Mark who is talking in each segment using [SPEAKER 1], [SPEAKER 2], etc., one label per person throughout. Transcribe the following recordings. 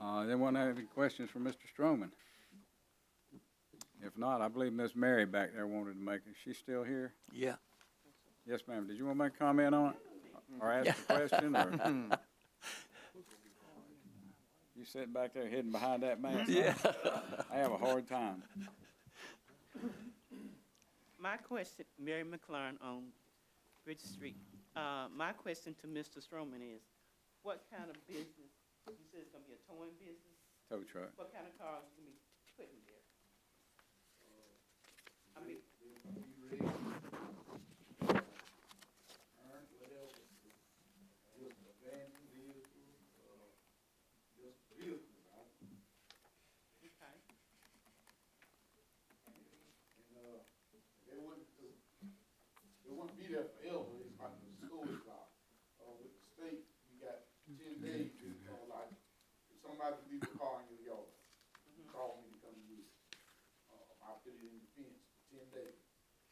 [SPEAKER 1] Uh, anyone have any questions for Mr. Stroman? If not, I believe Miss Mary back there wanted to make, is she still here?
[SPEAKER 2] Yeah.
[SPEAKER 1] Yes, ma'am. Did you want to make a comment on it? Or ask a question or? You sitting back there hidden behind that mask? Yeah. I have a hard time.
[SPEAKER 3] My question, Mary McLaren on Bridge Street. Uh, my question to Mr. Stroman is, what kind of business, you said it's gonna be a towing business?
[SPEAKER 1] Tow truck.
[SPEAKER 3] What kind of cars you be putting there? I mean, okay,
[SPEAKER 4] It wouldn't, it wouldn't be there forever, it's like the school job. Uh, with the state, you got ten days, you know, like, if somebody leaves a car in your yard, you call me to come use it. Uh, I put it in the fence for ten days,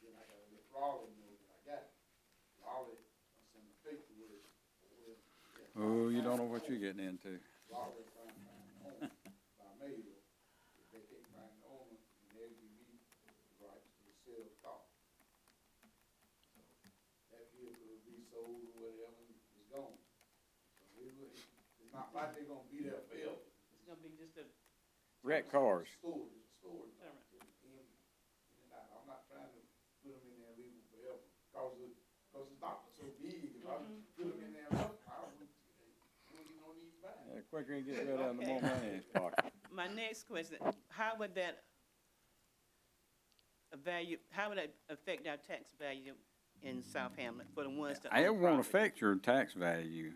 [SPEAKER 4] then I gotta let Raleigh know that I got it. Raleigh, I send the paperwork, or,
[SPEAKER 1] Oh, you don't know what you're getting into.
[SPEAKER 4] Raleigh trying to find the owner, by mail, if they can't find the owner, then they give me the rights to sell the car. that vehicle will be sold or whatever, it's gone. So it wa- It's not like they're gonna be there forever.
[SPEAKER 3] it's gonna be just a,
[SPEAKER 1] Wreck cars.
[SPEAKER 4] Storage, storage.
[SPEAKER 3] all right,
[SPEAKER 4] I'm not trying to put them in there and leave them forever, cause the, cause the doctor's so big, if I put them in there, I don't, I don't even know these bags.
[SPEAKER 1] The Uh, quicker he gets rid of them, the more money in his pocket.
[SPEAKER 3] My next question, how would that value, how would that affect our tax value in South Hamlet for the ones that
[SPEAKER 1] It won't
[SPEAKER 3] own property?
[SPEAKER 1] affect your tax value.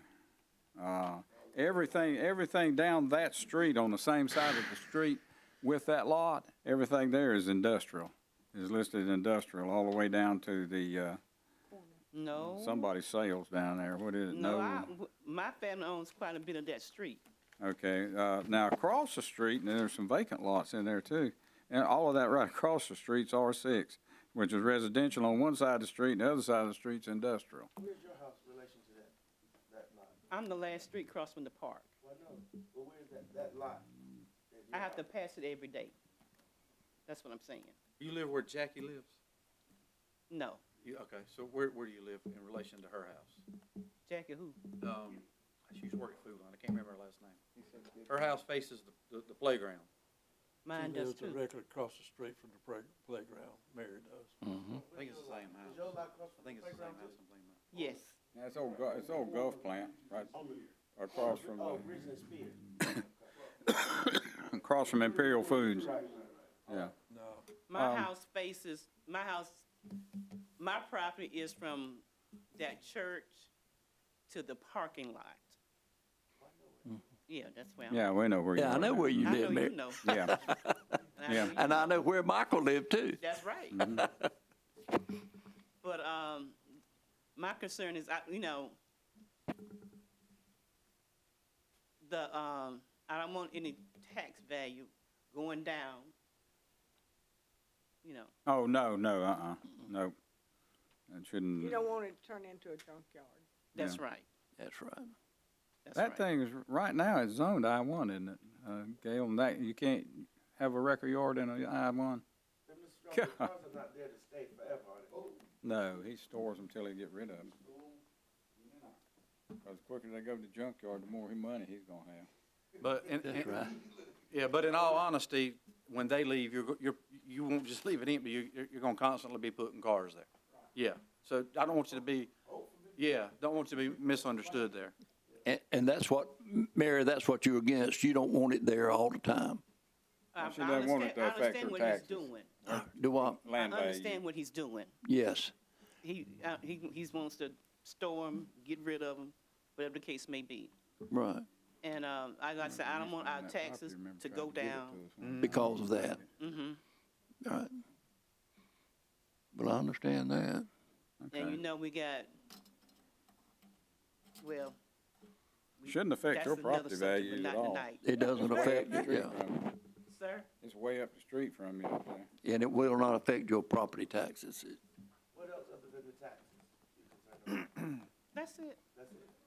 [SPEAKER 1] Uh, everything, everything down that street, on the same side of the street with that lot, everything there is industrial. Is listed industrial all the way down to the, uh,
[SPEAKER 3] No.
[SPEAKER 1] somebody's sales down there. What is it?
[SPEAKER 3] No, I, w- my family owns quite a bit of that street.
[SPEAKER 1] Okay, uh, now across the street, and there's some vacant lots in there too. And all of that right across the street's R six, which is residential on one side of the street, and the other side of the street's industrial.
[SPEAKER 5] Where's your house in relation to that, that lot?
[SPEAKER 3] I'm the last street across from the park.
[SPEAKER 5] Well, no, but where's that, that lot? that
[SPEAKER 3] I
[SPEAKER 5] your
[SPEAKER 3] have to
[SPEAKER 5] house-
[SPEAKER 3] pass it every day. That's what I'm saying.
[SPEAKER 6] You live where Jackie lives?
[SPEAKER 3] No,
[SPEAKER 6] You, okay, so where, where do you live in relation to her house?
[SPEAKER 3] Jackie, who?
[SPEAKER 6] Um, she used to work at Food Line, I can't remember her last name.
[SPEAKER 5] he said that-
[SPEAKER 6] Her house faces the, the- the playground.
[SPEAKER 7] She
[SPEAKER 3] Mine does
[SPEAKER 7] lives
[SPEAKER 3] too.
[SPEAKER 7] directly across the street from the play- playground, Mary does.
[SPEAKER 2] Mm-hmm.
[SPEAKER 6] I think it's the same
[SPEAKER 5] Is your
[SPEAKER 6] house.
[SPEAKER 5] lot across
[SPEAKER 6] I
[SPEAKER 5] from
[SPEAKER 6] think
[SPEAKER 5] the
[SPEAKER 6] it's the same
[SPEAKER 5] playground?
[SPEAKER 6] house I'm thinking about.
[SPEAKER 3] Yes,
[SPEAKER 1] That's old, gu- it's old golf plant, right across from,
[SPEAKER 5] Oh,
[SPEAKER 1] the-
[SPEAKER 5] Ridge and Spear.
[SPEAKER 1] across from Imperial Foods. Yeah,
[SPEAKER 7] No,
[SPEAKER 3] my
[SPEAKER 1] Um,
[SPEAKER 3] house faces, my house, my property is from that church to the parking lot. Yeah, that's where I'm.
[SPEAKER 1] yeah, we know where you are.
[SPEAKER 2] Yeah, I know where you
[SPEAKER 3] I
[SPEAKER 2] live,
[SPEAKER 3] know you
[SPEAKER 2] Mary.
[SPEAKER 3] know.
[SPEAKER 1] Yeah,
[SPEAKER 3] And I
[SPEAKER 1] Yeah.
[SPEAKER 3] know you
[SPEAKER 2] And I
[SPEAKER 3] know.
[SPEAKER 2] know where Michael lived too.
[SPEAKER 3] That's right.
[SPEAKER 1] Mm-hmm.
[SPEAKER 3] But, um, my concern is, I, you know, the, um, I don't want any tax value going down. You know,
[SPEAKER 1] oh, no, no, uh-uh, no. It shouldn't.
[SPEAKER 8] You don't want it to turn into a junkyard.
[SPEAKER 3] that's right,
[SPEAKER 2] That's right.
[SPEAKER 3] that's
[SPEAKER 1] That
[SPEAKER 3] right.
[SPEAKER 1] thing is, right now, it's zoned I one, isn't it? Uh, Gail, and that, you can't have a record yard in a I one?
[SPEAKER 5] But Mr. Strong, the cars are not there to stay forever, are they?
[SPEAKER 1] No, he stores them till he get rid of them. Cause the quicker they go to the junkyard, the more he money he's gonna have.
[SPEAKER 6] But, in
[SPEAKER 2] That's
[SPEAKER 6] in-
[SPEAKER 2] right.
[SPEAKER 6] yeah, but in all honesty, when they leave, you're, go- you're, you won't just leave it empty, you, you're- you're gonna constantly be putting cars there. Yeah, so I don't want you to be, yeah, don't want you to be misunderstood there.
[SPEAKER 2] And, and that's what, Mary, that's what you're against. You don't want it there all the time.
[SPEAKER 3] I-
[SPEAKER 1] She
[SPEAKER 3] I
[SPEAKER 1] doesn't want it
[SPEAKER 3] understand-
[SPEAKER 1] to
[SPEAKER 3] I
[SPEAKER 1] affect
[SPEAKER 3] understand
[SPEAKER 1] her
[SPEAKER 3] what he's
[SPEAKER 1] taxes.
[SPEAKER 3] doing.
[SPEAKER 2] Do I?
[SPEAKER 3] I
[SPEAKER 1] Land value.
[SPEAKER 3] understand what he's doing.
[SPEAKER 2] Yes.
[SPEAKER 3] He, uh, he, he wants to store them, get rid of them, whatever the case may be.
[SPEAKER 2] Right.
[SPEAKER 3] And, um, like I said,
[SPEAKER 1] Mm-hmm.
[SPEAKER 3] I don't want our
[SPEAKER 1] That property,
[SPEAKER 3] taxes
[SPEAKER 1] remember,
[SPEAKER 3] to
[SPEAKER 1] tried
[SPEAKER 3] go
[SPEAKER 1] give it
[SPEAKER 3] down.
[SPEAKER 1] to us.
[SPEAKER 2] Because of that.
[SPEAKER 3] hmm
[SPEAKER 2] All right. Well, I understand
[SPEAKER 3] And
[SPEAKER 2] that.
[SPEAKER 3] Mm-hmm. you
[SPEAKER 1] Okay.
[SPEAKER 3] know, we got, well. we-
[SPEAKER 1] Shouldn't affect
[SPEAKER 3] that's
[SPEAKER 1] your
[SPEAKER 3] another
[SPEAKER 1] property
[SPEAKER 3] subject,
[SPEAKER 1] value
[SPEAKER 3] but
[SPEAKER 1] at
[SPEAKER 3] not
[SPEAKER 1] all.
[SPEAKER 3] tonight.
[SPEAKER 2] It doesn't affect,
[SPEAKER 1] Street
[SPEAKER 2] yeah,
[SPEAKER 1] from you.
[SPEAKER 3] Sir,
[SPEAKER 1] It's way up the street from you up there.
[SPEAKER 2] and it will not affect your property taxes. It-
[SPEAKER 5] What else other than the taxes? you're concerned about?
[SPEAKER 3] that's it.
[SPEAKER 5] That's it.